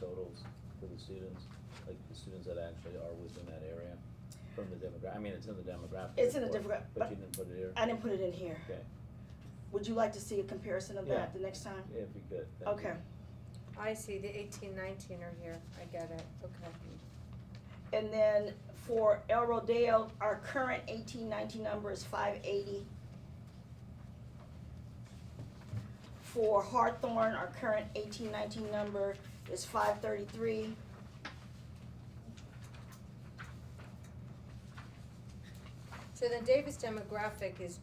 totals for the students? Like the students that actually are within that area from the demographic, I mean, it's in the demographic. It's in the report, demogra- But you didn't put it here? I didn't put it in here. Okay, Would you like to see a comparison of Yeah. that the next time? if you could. thank you. Okay. I see, the eighteen, nineteen are here, I get it, okay. And then for El Rodeo, our current eighteen nineteen number is five eighty. For Hawthorne, our current eighteen nineteen number is five thirty-three. So then Davis demographic is,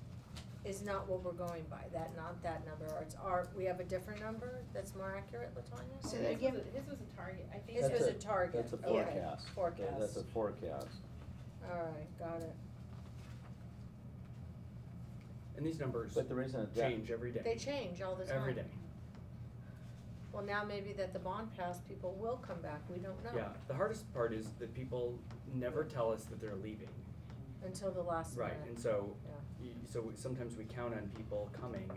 is not what we're going by, that, not that number, or it's our, we have a different number that's more accurate, Latonya? So that again- His was a- His was a target, I think. His That's was a- a target, That's a okay, forecast. Yeah, forecast. That's a forecast. Alright, got it. And these numbers But the reason that. change every day. They change all the time. Every day, Well, now maybe that the bond passed, people will come back, we don't know. yeah. The hardest part is that people never tell us that they're leaving, Until the last right? minute. And so, Yeah. y- so we- sometimes we count on people coming,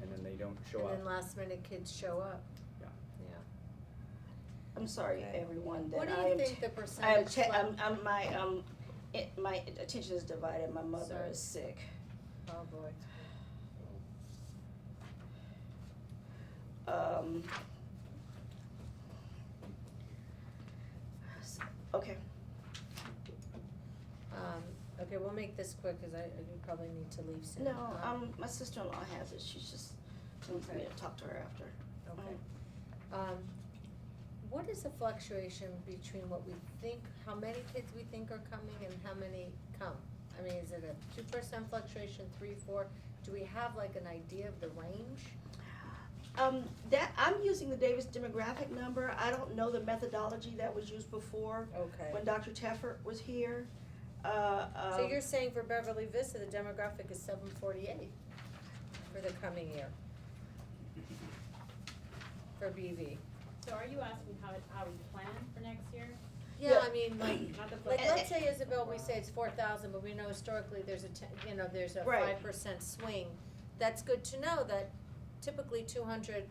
and then they don't show And then up. last minute kids show up. Yeah. Yeah. I'm sorry, Okay. everyone, that What I do you am, think the I am, percentage? che- left- I'm, I'm, my, um, it, my attention is divided, my mother Sorry. is sick. Oh, boy. Um. s- Okay, Um, okay, we'll make this quick, cause I, I do probably need to leave soon. no, Um, um, my sister-in-law has it, she's just, she wants me Okay. to talk to her after. Okay. Um, what is the fluctuation between what we think, how many kids we think are coming and how many come? I mean, is it a two percent fluctuation, three, four? Do we have like an idea of the range? Um, that, I'm using the Davis demographic number, I don't know the methodology that was used before, Okay. when Dr. Tefford was here, uh, um. So you're saying for Beverly Vista, the demographic is seven forty-eight for the coming year? For BV? So are you asking how, it- how we plan for next year? Yeah, I mean, like, Not the like, budget. let's say Isabel, we say it's four thousand, but we know historically there's a ten, you know, there's a Right. five percent swing. That's good to know that typically two hundred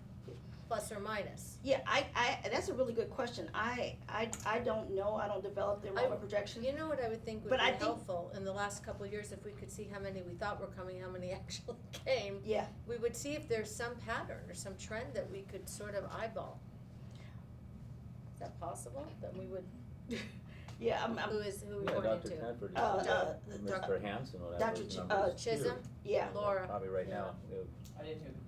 plus or minus. Yeah, I, I, that's a really good question, I, I, I don't know, I don't develop the enrollment projection. You know what I would think would But be I think- helpful in the last couple of years, if we could see how many we thought were coming, how many actually came? Yeah. We would see if there's some pattern or some trend that we could sort of eyeball. Is that possible? That we would, Yeah, I'm, I'm, who is, who we Yeah, pointed Dr. to? Tedford, Uh, uh, doc- Mr. Hanson, would have Dr. those Ch- numbers. uh, here. Chisholm? yeah, Laura, Probably right yeah. now. it would- I did too, because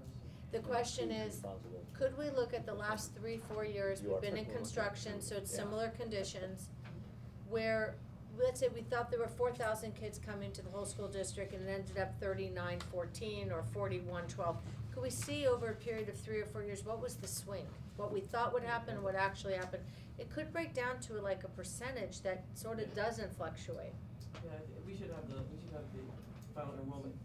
The yeah, question who's is, responsible? Could we look at the last three, four years, You we've are been in correct. construction, so it's Yeah. similar conditions, where, let's say we thought there were four thousand kids coming to the whole school district and it ended up thirty-nine, fourteen, or forty-one, twelve. Could we see over a period of three or four years, what was the swing? What we thought would happen, and what actually happened? It could break down to like a percentage that sort of doesn't fluctuate. yeah, I thi- we should have the, we should have the final enrollment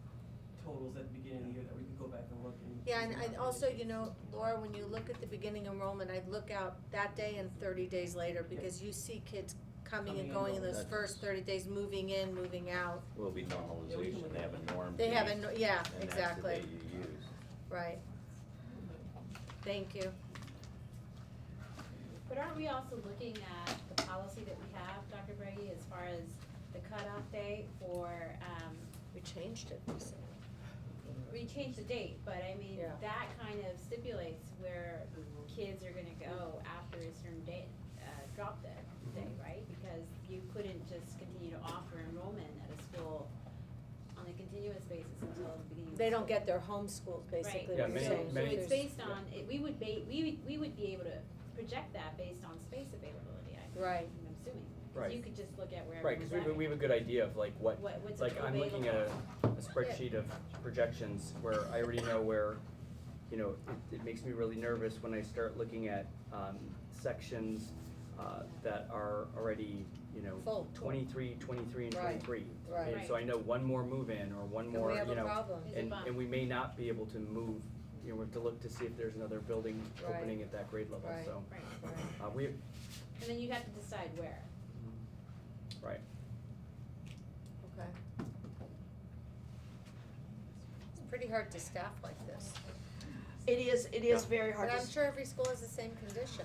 totals at the beginning of the year that we could go back and look and. Yeah, and I also, you know, Laura, when you look at the beginning enrollment, I'd look out that day and thirty days later, because you see kids coming and Coming and going in those going. first thirty days, moving in, moving out. Will be normalization, they have a norm. They piece, haven't, yeah, and that's the exactly, day you use. right, thank you. But aren't we also looking at the policy that we have, Dr. Brady, as far as the cutoff date for, um, We changed it recently. we changed the date, but I mean, Yeah. that kind of stipulates where kids are gonna go after a certain date, uh, drop dead Mm-hmm. day, right? Because you couldn't just continue to offer enrollment at a school on a continuous basis until the beginning of the They don't school get their homeschools, basically, Yeah, what you're many- saying. So many- it's There's- based on, it, we would ba- we would, we would be able to project that based on space availability, I- Right, I'm assuming. 'Cause Right. you could just look at where Right, everyone's because we have, a- at. we have a good idea of like what, What, what's like I'm looking at a, available. a spreadsheet of projections where I already know where, you know, it, it makes me really nervous when I start looking at, um, sections, uh, that are already, you know, Full. 23, 23, and Right, twenty-three. right. And so I know one more move-in or one and more, we you know. have a problem, Is it And, bump? and we may not be able to move, you know, we have to look to see if there's another building Right. opening at that grade level, Right. so, Right, right, uh, we, and then you'd have to decide where. right. okay. It's pretty hard to staff like this, it is, it is very hard but to. I'm sure every school has the same condition.